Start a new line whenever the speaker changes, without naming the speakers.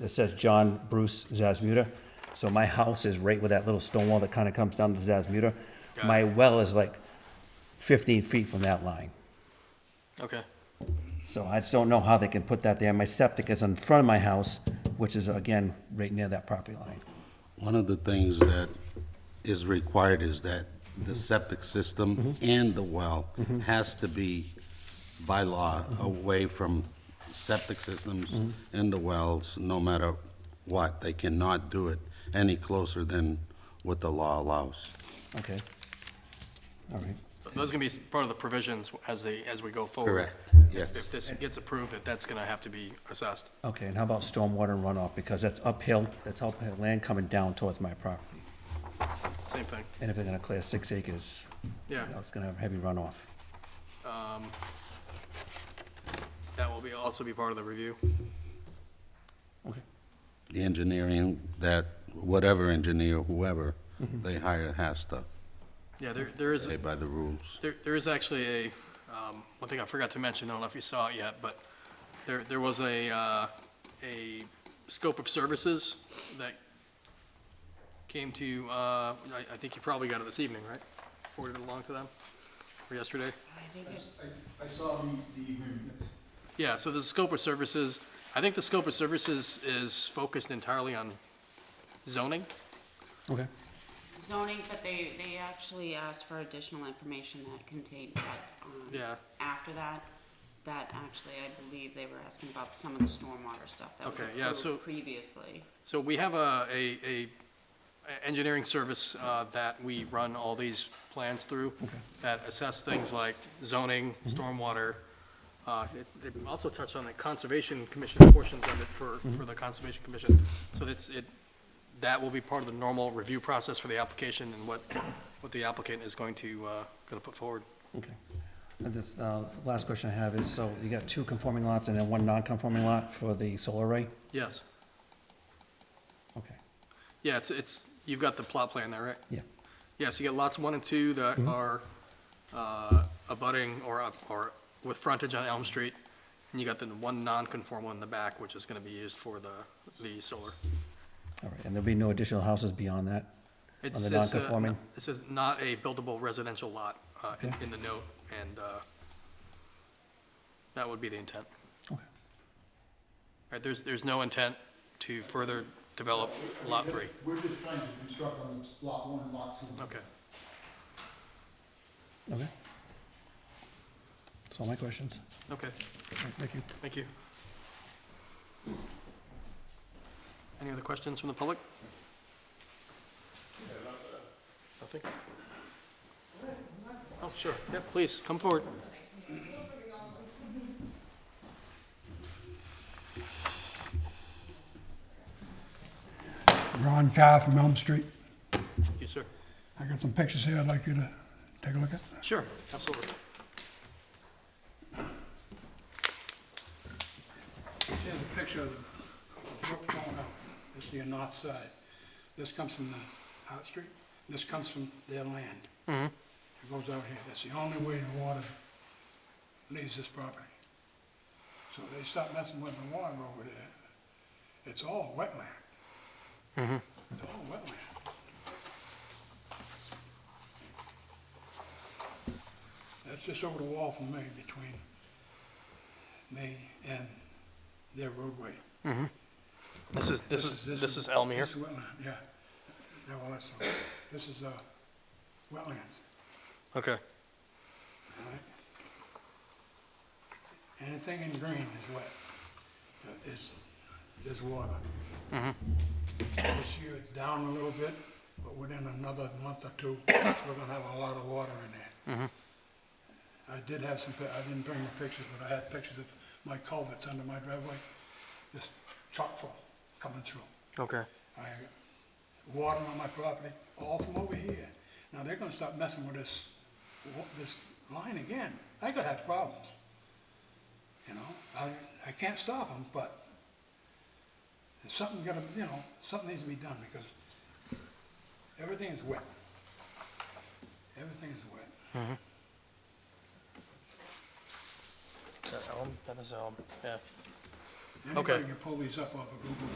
it says John Bruce Zazmuda. So my house is right where that little stone wall that kind of comes down to Zazmuda.
Got
My well is like 15 feet from that line.
Okay.
So I just don't know how they can put that there. My septic is in front of my house, which is again, right near that property line.
One of the things that is required is that the septic system and the well has to be by law away from septic systems and the wells, no matter what. They cannot do it any closer than what the law allows.
Okay. All right.
Those are gonna be part of the provisions as they, as we go forward.
Correct, yes.
If this gets approved, that that's gonna have to be assessed.
Okay, and how about stormwater runoff? Because that's uphill, that's uphill land coming down towards my property.
Same thing,
And if they're gonna clear six acres,
yeah.
you know, it's gonna have heavy runoff.
That will be, also be part of the review.
Okay.
The engineering, that, whatever engineer, whoever they hire has to
Yeah, there, there is,
play by the rules.
there, there is actually a, um, one thing I forgot to mention, I don't know if you saw it yet, but there, there was a, uh, a scope of services that came to, uh, I, I think you probably got it this evening, right? Forwarded along to them, or yesterday?
I think it's,
I saw the, the agreement.
Yeah, so the scope of services, I think the scope of services is focused entirely on zoning.
Okay.
zoning, but they, they actually asked for additional information that contained that, um,
Yeah.
after that, that actually, I believe they were asking about some of the stormwater stuff that was
Okay, yeah, so-
approved previously.
So we have a, a, a a engineering service uh, that we run all these plans through that assess things like zoning, stormwater. uh, it- They also touch on the Conservation Commission portions of it for, for the Conservation Commission. So it's, it, that will be part of the normal review process for the application and what, what the applicant is going to, uh, going to put forward.
Okay. And this, uh, last question I have is, so you got two conforming lots and then one non-conforming lot for the solar array?
Yes.
Okay,
Yeah, it's, it's, you've got the plot plan there, right?
Yeah.
Yeah, so you got lots one and two that
Mm-hmm.
are, uh, abutting or, up- or with frontage on Elm Street. And you got the one non-conformal in the back, which is gonna be used for the, the solar.
all right. And there'll be no additional houses beyond that?
It
the
says, uh,
non-conforming?
This is not a buildable residential lot, uh, in, in the note, and, uh, that would be the intent.
Okay.
Right, there's, there's no intent to further develop lot three.
We're just trying to construct on lot one and lot two.
Okay,
Okay. That's all my questions.
okay.
All right, Thank you.
Thank you. Any other questions from the public? Nothing? Oh, sure, yeah, please, come forward.
Ron Carr from Elm Street.
Thank you, sir.
I got some pictures here I'd like you to take a look at.
Sure, absolutely.
Here's a picture of the brook going up. This is your north side. This comes from the Hart Street. This comes from their land. It goes out here. That's the only way the water leaves this property. So they start messing with the water over there. It's all wetland. It's all wetland. That's just over the wall from me, between me and their roadway.
This is, this is, this is Elm here.
This is wetland, yeah. Yeah, well, that's, this is, uh, wetlands,
Okay,
all right? Anything in green is wet, uh, is, is water.
Mm-hmm.
This year it's down a little bit, but within another month or two, we're gonna have a lot of water in there.
Mm-hmm.
I did have some, pi- I didn't bring the pictures, but I had pictures of my culverts under my driveway, just chock full coming through.
okay.
I, water on my property, all from over here. Now they're gonna start messing with this, wa- this line again. I could have problems. You know, I, I can't stop them, but there's something gotta, you know, something needs to be done because everything is wet. Everything is wet.
Is that Elm? That is Elm, yeah.
Anybody can pull these up off of Google